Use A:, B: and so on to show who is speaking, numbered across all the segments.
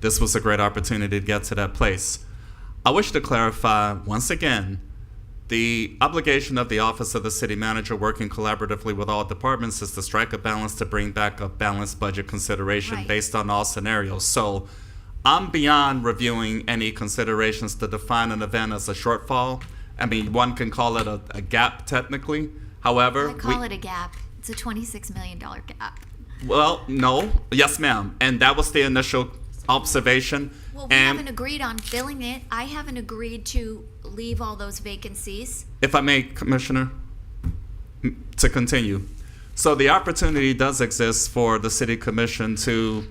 A: This was a great opportunity to get to that place. I wish to clarify once again the obligation of the Office of the City Manager, working collaboratively with all departments, is to strike a balance to bring back a balanced budget consideration
B: Right.
A: based on all scenarios. So I'm beyond reviewing any considerations to define an event as a shortfall. I mean, one can call it a, a gap technically. However,
B: I call it a gap. It's a $26 million gap.
A: well, no, yes, ma'am. And that was the initial observation.
B: Well, we
A: and
B: haven't agreed on filling it. I haven't agreed to leave all those vacancies.
A: if I may, Commissioner, m- to continue. So the opportunity does exist for the city commission to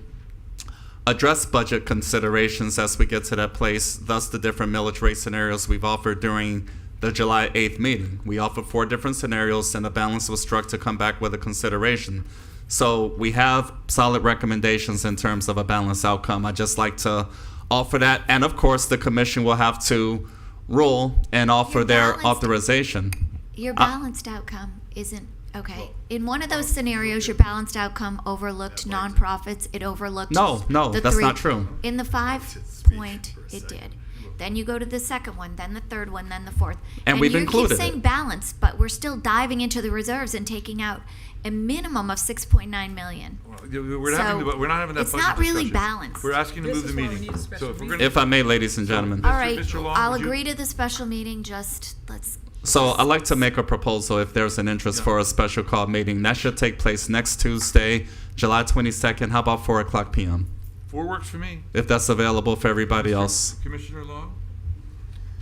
A: address budget considerations as we get to that place, thus the different millage rate scenarios we've offered during the July 8th meeting. We offered four different scenarios and a balance was struck to come back with a consideration. So we have solid recommendations in terms of a balanced outcome. I'd just like to offer that. And of course, the commission will have to rule and offer
B: Your
A: their
B: balanced-
A: authorization.
B: Your
A: Uh,
B: balanced outcome isn't okay. In one of those scenarios, your balanced outcome overlooked nonprofits. It overlooked.
A: No, no,
B: the
A: that's
B: three-
A: not true.
B: In the five point, it did. Then you go to the second one, then the third one, then the fourth.
A: And we've
B: you
A: included it.
B: keep saying balance, but we're still diving into the reserves and taking out a minimum of six point nine million.
C: We're having,
B: So,
C: the- we're not having that
B: it's
C: budget
B: not really
C: discussion.
B: balanced.
C: We're asking to
D: This
C: move the
D: is why we
C: meeting.
D: need a
C: So
D: special
C: if we're gonna-
A: If I may, ladies and gentlemen.
B: All right,
C: Mr. Long,
B: I'll
C: would you-
B: agree to the special meeting. Just let's.
A: So I'd like to make a proposal if there's an interest for a special call meeting. That should take place next Tuesday, July 22nd. How about 4 o'clock p.m.?
C: Four works for me.
A: If that's available for everybody else.
C: Commissioner Long?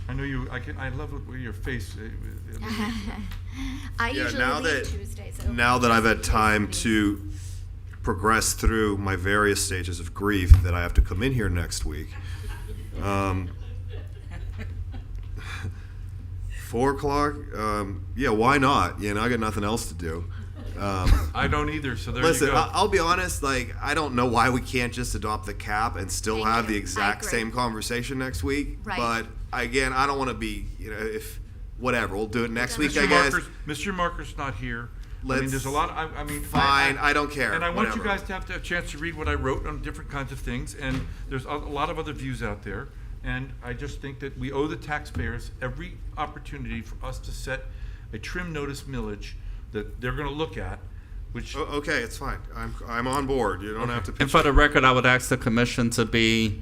C: I know you, I can, I love it with your face. uh, uh, uh,
B: I
E: Yeah,
B: usually
E: now
B: leave
E: that-
B: Tuesdays.
E: Now that I've had time to progress through my various stages of grief that I have to come in here next week, um, four o'clock, um, yeah, why not? You know, I got nothing else to do. Um,
C: I don't either, so there you
E: Listen, I-
C: go.
E: I'll be honest. Like, I don't know why we can't just adopt the cap and still
B: Thank
E: have
B: you.
E: the
B: I
E: exact
B: agree.
E: same conversation next week.
B: Right.
E: But again, I don't want to be, you know, if whatever, we'll do it next week. I
C: Mr.
E: guess.
C: Markers, Mr. Markers not here. I mean,
E: Let's-
C: there's a lot, I, I mean. I-
E: Fine, I don't care,
C: And I want you
E: whatever.
C: guys to have to- a chance to read what I wrote on different kinds of things, and there's a a lot of other views out there. And I just think that we owe the taxpayers every opportunity for us to set a trim notice millage that they're gonna look at, which.
E: O- okay, it's fine. I'm I'm on board. You don't have to.
A: And for the record, I would ask the commission to be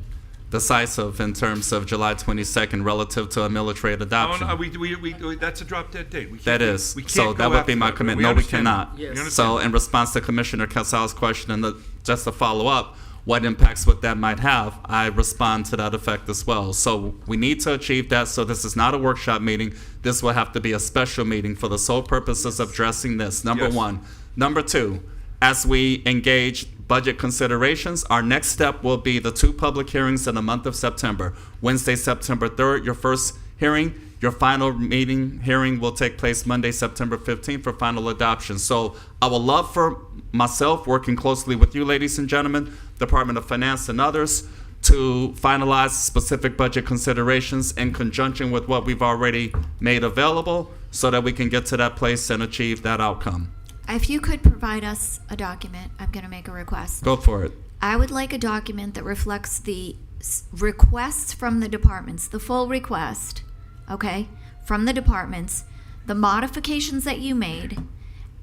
A: decisive in terms of July 22nd relative to a military
C: Oh,
A: adoption.
C: no, we, we, we, we- that's a drop dead date. We can't
A: That
C: do-
A: is.
C: we can't
A: So that
C: go
A: would
C: after
A: be my
C: that.
A: commitment. No, we
C: understand
A: cannot.
C: that. We
A: So
C: understand
A: in response to Commissioner Casal's question, and the- just to follow up, what impacts would that might have, I respond to that effect as well. So we need to achieve that, so this is not a workshop meeting. This will have to be a special meeting for the sole purposes of addressing this, number
C: Yes.
A: one. Number two, as we engage budget considerations, our next step will be the two public hearings in the month of September. Wednesday, September 3rd, your first hearing. Your final meeting hearing will take place Monday, September 15th for final adoption. So I would love for myself, working closely with you, ladies and gentlemen, Department of Finance and others, to finalize specific budget considerations in conjunction with what we've already made available so that we can get to that place and achieve that outcome.
B: If you could provide us a document, I'm going to make a request.
A: Go for it.
B: I would like a document that reflects the s- requests from the departments, the full request, okay, from the departments, the modifications that you made,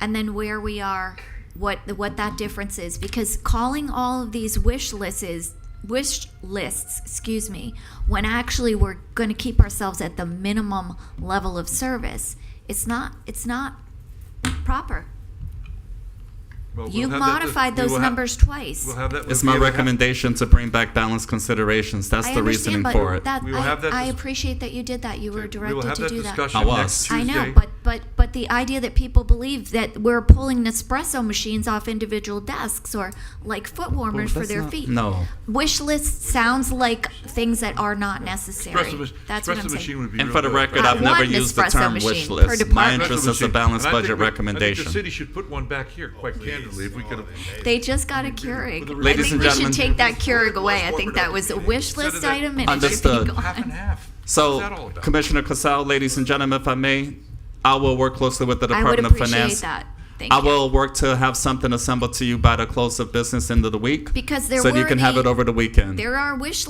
B: and then where we are, what the, what that difference is. Because calling all of these wish lists is wish lists, excuse me, when actually we're going to keep ourselves at the minimum level of service, it's not it's not proper.
C: that. Well, we'll
B: You've
C: have that-
B: modified
C: we will
B: those
C: have-
B: numbers twice.
C: We'll have that.
A: It's
C: we'll
A: my
C: have that-
A: recommendation to bring back balanced considerations. That's
B: I
A: the
B: understand,
A: reasoning
B: but
A: for it.
B: That,
C: We will have that
B: I, I
C: dis-
B: appreciate that you did that. You were
C: We will
B: directed
C: have
B: to
C: that
B: do that.
C: discussion
A: I was.
C: next Tuesday.
B: I know, but but but the idea that people believe that we're pulling Nespresso machines off individual desks or like foot warmers for
A: that's
B: their
A: not-
B: feet.
A: no.
B: Wish list sounds like things that are not necessary.
C: Espresso mach-
B: That's what
C: espresso
B: I'm
C: machine
B: saying.
C: would be
A: And
C: real
A: for the
C: good.
A: record,
B: Not
A: I've never
B: one
A: used the
B: esprecer
A: term
B: machine
A: wish
B: per
A: list. My
B: department.
A: interest is a
C: machine.
A: balanced
C: And I think
A: budget
C: we- I think the
A: recommendation.
C: city should put one back here, quite candidly, if we could. have-
B: They just got a Keurig.
C: With a-
B: I
A: Ladies
B: think
A: and
B: we
A: gentlemen-
B: should take that Keurig away. I think that was a wish
C: Instead of
B: list
C: that-
B: item and it
A: Understood.
B: should be
C: Half and
B: gone.
C: half. What's that all
A: So,
C: about?
A: Commissioner Casal, ladies and gentlemen, if I may, I will work closely with the
B: I would
A: Department of
B: appreciate
A: Finance.
B: that. Thank
A: I
B: you.
A: will work to have something assembled to you by the close of business end of the week.
B: Because there
A: so you
B: were
A: can have
B: the-
A: it over the weekend.
B: There are wish